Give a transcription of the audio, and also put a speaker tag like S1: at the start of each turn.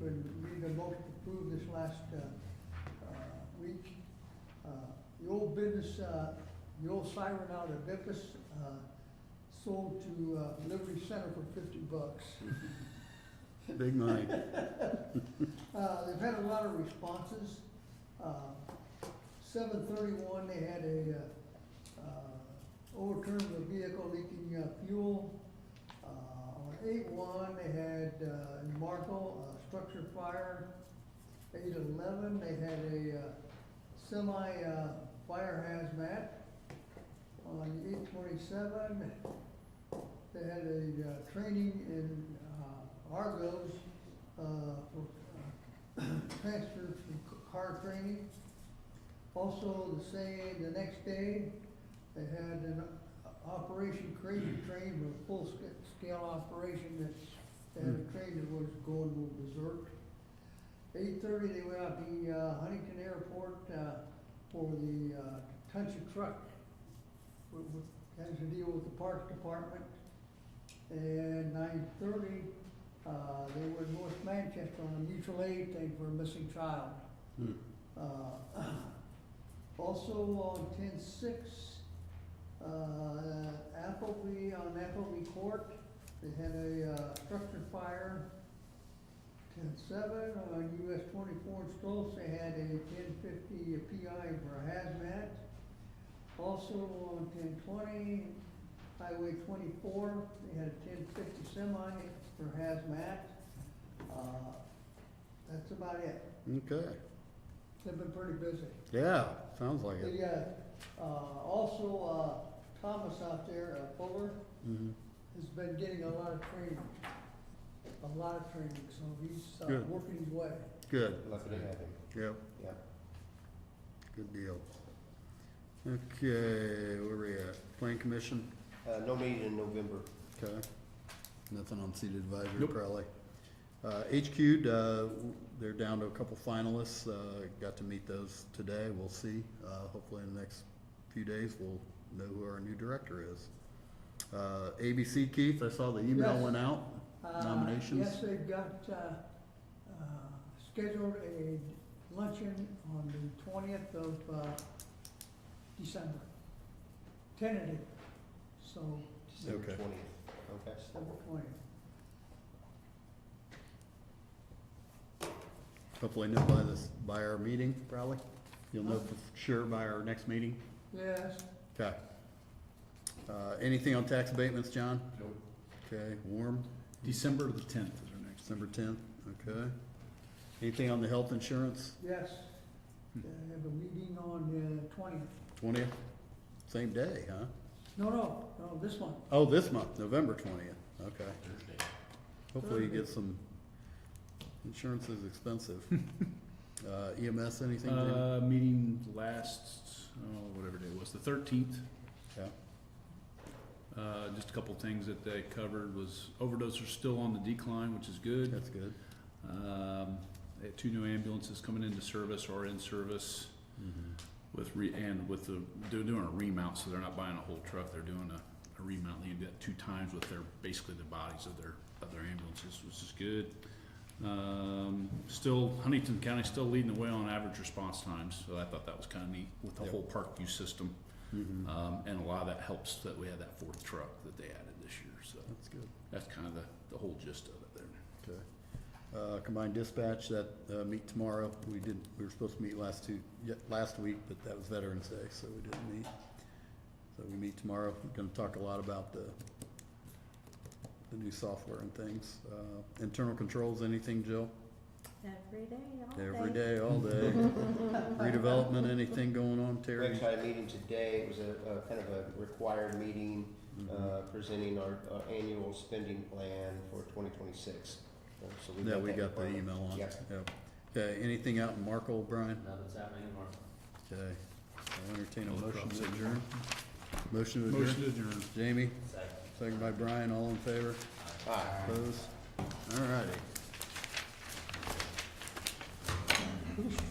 S1: when we made a motion to approve this last uh, uh, week. Uh, The old business, uh, the old siren out of Memphis uh, sold to uh, Liberty Center for fifty bucks.
S2: Big money.
S1: Uh, They've had a lot of responses. Uh, Seven thirty-one, they had a uh, uh, overturned the vehicle leaking uh, fuel. Uh, On eight-one, they had uh, in Marco, a structure fire. Eight-eleven, they had a uh, semi uh, fire hazmat. On eight-twenty-seven, they had a uh, training in uh, Argos uh, for uh, transfer from c- car training. Also, the same, the next day, they had an o- Operation Crazy Train, a full-scale operation that, they had a train that was going berserk. Eight thirty, they went out to uh, Huntington Airport uh, for the uh, touch a truck, wh- wh- has to deal with the Parks Department. And nine thirty, uh, they were in North Manchester on a mutual aid thing for a missing child.
S2: Hmm.
S1: Uh, Also on ten six, uh, Appleby, on Appleby Court, they had a, uh, structure fire. Ten seven, on US twenty-four in Stolz, they had a ten fifty PI for hazmat. Also on ten twenty, Highway twenty-four, they had a ten fifty semi for hazmat. Uh, That's about it.
S2: Okay,
S1: They've been pretty busy.
S2: yeah, sounds like it.
S1: They, uh, uh, also, uh, Thomas out there, uh, Fuller,
S2: Mhm.
S1: has been getting a lot of training. A lot of training, so he's, uh,
S2: Good.
S1: working his way.
S2: Good,
S3: Lucky to have him,
S2: yep,
S3: yeah.
S2: good deal. Okay, where we at? Plan commission,
S3: Uh, no meeting in November.
S2: okay. Nothing on seated advisory
S4: Nope.
S2: probably. Uh, HQ, uh, they're down to a couple finalists, uh, got to meet those today, we'll see. Uh, hopefully in the next few days, we'll know who our new director is. Uh, ABC Keith, I saw the email
S1: Yes.
S2: went out,
S1: Uh,
S2: Nominations?
S1: Yes, they've got, uh, uh, scheduled a luncheon on the twentieth of, uh, December. Tentative, so,
S3: December
S2: Okay.
S3: Twentieth, okay.
S1: December twentieth.
S2: hopefully know by this, by our meeting probably. You'll know for sure by our next meeting.
S1: Yes,
S2: Okay. Uh, anything on tax abatements, John?
S3: Nope.
S2: Okay, warm,
S4: December the tenth is our next.
S2: December tenth, okay. Anything on the health insurance,
S1: yes.
S2: Hmm.
S1: They have a meeting on the twentieth.
S2: twentieth? Same day, huh?
S1: No, no, no, this one.
S2: Oh, this month, November twentieth, okay. Hopefully you get some, insurance is expensive. Uh, EMS, anything? Jamie?
S4: Uh, meeting last, oh, whatever day it was, the thirteenth.
S2: Yeah,
S4: Uh, just a couple things that they covered was overdoses are still on the decline, which is good.
S2: that's good.
S4: Um, they had two new ambulances coming into service or in service with re, and with the, they're doing a remount, so they're not buying a whole truck, they're doing a, a remount. They did that two times with their, basically the bodies of their, of their ambulances, which is good. Um, still, Huntington County still leading the way on average response times, so I thought that was kinda neat with the
S2: Yep.
S4: whole park use system.
S2: Mhm.
S4: Um, and a lot of that helps that we had that fourth truck that they added this year, so
S2: That's good.
S4: that's kinda the, the whole gist of it there.
S2: Okay. Uh, Combined dispatch, that, uh, meet tomorrow. We did, we were supposed to meet last two, ye- last week, but that was Veterans Day, so we didn't meet. So we meet tomorrow. We're gonna talk a lot about the, the new software and things. Uh, Internal controls, anything, Jill?
S5: Every day, all day.
S2: Every day, all day. Redevelopment, anything going on,
S3: We
S2: Terry?
S3: actually had a meeting today, it was a, a kind of a required meeting, uh, presenting our, our annual spending plan for twenty twenty-six.
S2: Yeah, we got the email on.
S3: Yep.
S2: Yep. Okay, anything out in Markle, Brian?
S6: Nothing's happening in Marfa.
S2: Okay. I'll entertain a
S4: All the
S2: motion
S4: crops
S2: to
S4: in.
S2: adjourn. Motion to
S4: Motion
S2: adjourn.
S4: to adjourn.
S2: Jamie?
S6: Second.
S2: Second by Brian, all in favor?
S3: Aye.
S2: Opposed? All righty.
S1: Who's